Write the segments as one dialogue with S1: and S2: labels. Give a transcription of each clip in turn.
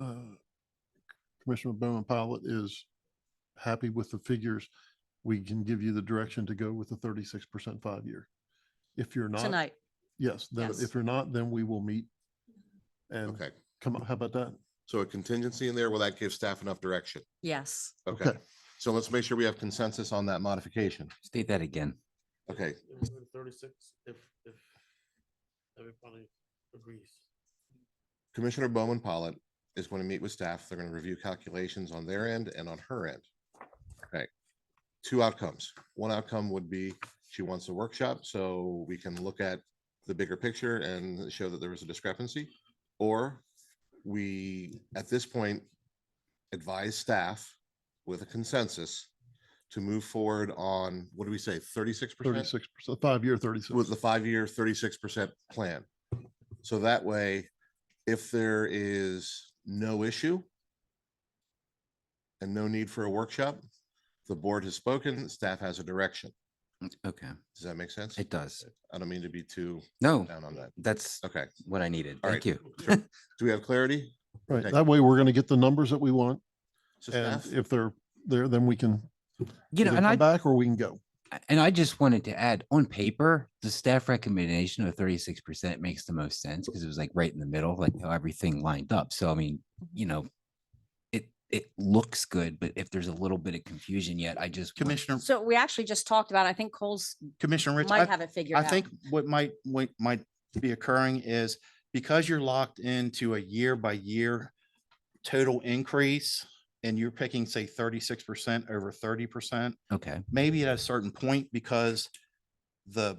S1: uh, Commissioner Bowman Pilot is happy with the figures, we can give you the direction to go with the thirty-six percent five-year. If you're not,
S2: tonight.
S1: yes, then
S2: Yes.
S1: if you're not, then we will meet and
S3: Okay,
S1: come, how about that?
S3: so a contingency in there, will that give staff enough direction?
S2: Yes.
S3: Okay, so let's make sure we have consensus on that modification.
S4: State that again.
S3: Okay,
S5: It was in Thirty-six, if, if everybody agrees.
S3: Commissioner Bowman Pollitt is going to meet with staff. They're going to review calculations on their end and on her end. Okay. Two outcomes. One outcome would be she wants a workshop so we can look at the bigger picture and show that there was a discrepancy. Or we, at this point, advise staff with a consensus to move forward on, what do we say, thirty-six percent?
S1: Thirty-six percent, five-year, thirty-six.
S3: with the five-year thirty-six percent plan. So that way, if there is no issue and no need for a workshop, the board has spoken, staff has a direction.
S4: Okay,
S3: Does that make sense?
S4: it does.
S3: I don't mean to be too
S4: No,
S3: down on that.
S4: that's
S3: Okay,
S4: what I needed.
S3: All
S4: Thank you.
S3: do we have clarity?
S1: Right,
S3: Okay.
S1: that way we're going to get the numbers that we want,
S3: So
S1: and
S3: staff,
S1: if they're there, then we can
S4: You know,
S1: either
S4: and
S1: come
S4: I,
S1: Back or we can go.
S4: and I just wanted to add, on paper, the staff recommendation of thirty-six percent makes the most sense because it was like right in the middle, like how everything lined up. So I mean, you know, it, it looks good, but if there's a little bit of confusion yet, I just. wanted-
S6: Commissioner,
S2: So we actually just talked about, I think Cole's
S6: Commissioner Rich,
S2: might
S6: Um, I,
S2: have it figured
S6: I
S2: out.
S6: think what might, what might be occurring is because you're locked into a year by year total increase and you're picking, say, thirty-six percent over thirty percent,
S4: Okay,
S6: maybe at a certain point because the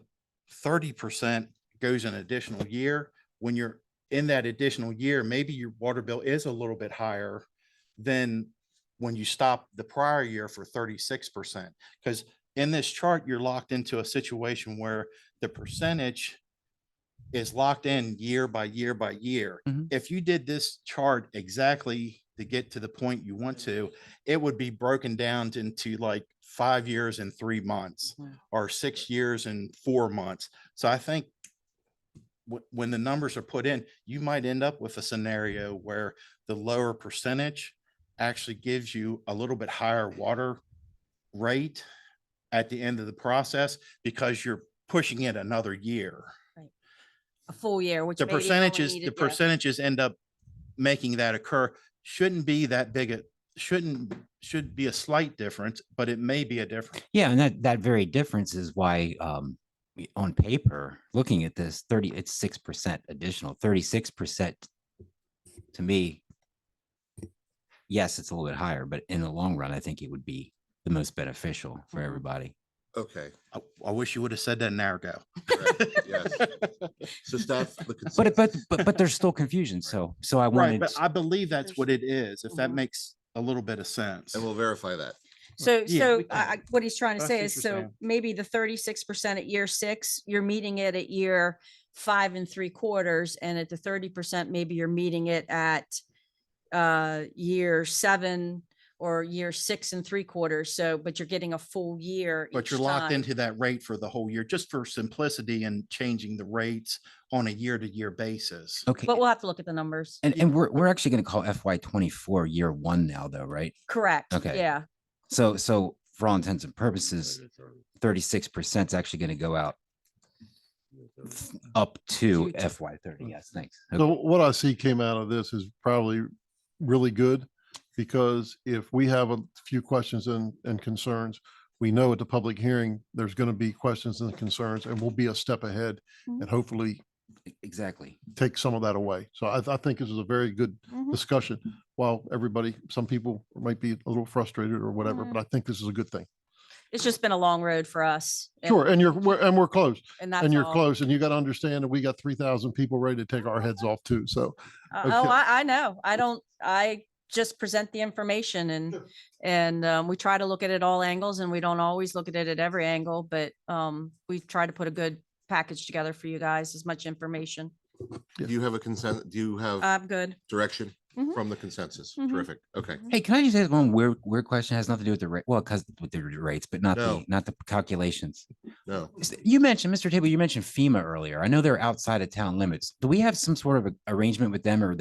S6: thirty percent goes an additional year. When you're in that additional year, maybe your water bill is a little bit higher than when you stop the prior year for thirty-six percent. Because in this chart, you're locked into a situation where the percentage is locked in year by year by year.
S4: Mhm.
S6: If you did this chart exactly to get to the point you want to, it would be broken down into like five years and three months
S2: Mhm.
S6: or six years and four months. So I think wh- when the numbers are put in, you might end up with a scenario where the lower percentage actually gives you a little bit higher water rate at the end of the process because you're pushing it another year.
S2: A full year, which.
S6: The
S2: maybe only
S6: percentages, the
S2: needed- yeah.
S6: percentages end up making that occur shouldn't be that big, a shouldn't, should be a slight difference, but it may be a difference.
S4: yeah, and that, that very difference is why, um, we- on paper, looking at this thirty, it's six percent additional, thirty-six percent to me, yes, it's a little bit higher, but in the long run, I think it would be the most beneficial for
S2: Mhm.
S6: Mm-hmm.
S4: everybody.
S3: okay.
S6: I, I wish you would have said that an hour ago.
S3: correct, Yes. So staff, the
S4: But, it-
S3: consensus,
S4: but, but, but there's still confusion, so, so I
S6: Right,
S4: wanted,
S6: but I believe that's
S2: There's-
S6: what it is, if that
S2: Mhm.
S6: makes a little bit of sense.
S3: and we'll verify that.
S2: So,
S6: Yeah,
S2: so
S6: we
S2: I, I-
S6: can.
S2: what he's trying to
S6: That's
S2: say is, so
S6: interesting.
S2: maybe the thirty-six percent at year six, you're meeting it at year five and three quarters, and at the thirty percent, maybe you're meeting it at uh, year seven or year six and three quarters, so, but you're getting a full year.
S6: But you're
S2: each
S6: locked
S2: time.
S6: into that rate for the whole year, just for simplicity and changing the rates on a year-to-year basis.
S4: okay,
S2: But we'll have to look at the numbers.
S4: and, and we're, we're actually gonna call FY twenty-four year one now, though, right?
S2: Correct.
S4: Okay.
S2: Yeah.
S4: So, so for all intents and purposes, thirty-six percent is actually gonna go out up to
S2: Future.
S4: FY thirty, yes, thanks. Okay.
S1: So what I see came out of this is probably really good because if we have a few questions and, and concerns, we know at the public hearing, there's going to be questions and concerns and we'll be a step ahead
S2: Mhm.
S1: and hopefully
S4: Exactly.
S1: take some of that away. So I, I think this is a very good
S2: Mhm.
S1: discussion. While everybody, some people might be a little frustrated or whatever,
S2: Mm-hmm.
S1: but I think this is a good thing.
S2: It's just been a long road for us. and-
S1: Sure. And you're, we're- and we're close
S2: And that's
S1: and you're
S2: all.
S1: close and you got to understand that we got 3,000 people ready to take our heads off too. So
S2: Uh,
S1: Okay.
S2: Oh, I, I know. I don't, I just present the information and, and, um, we try to look at it all angles and we don't always look at it at every angle, but, um, we've tried to put a good package together for you guys, as much information.
S3: Do you have a consent, do you have
S2: I'm good.
S3: direction
S2: Mhm.
S3: from the consensus?
S2: Mhm.
S3: Terrific, okay.
S4: Hey, can I just ask one weird, weird question? It Has nothing to do with the rate, well, because with the rates, but not
S3: No.
S4: the, not the calculations.
S3: No,
S4: S- You mentioned, Mr. Table, you mentioned FEMA earlier. I know they're outside of town limits. Do we have some sort of a- arrangement with them or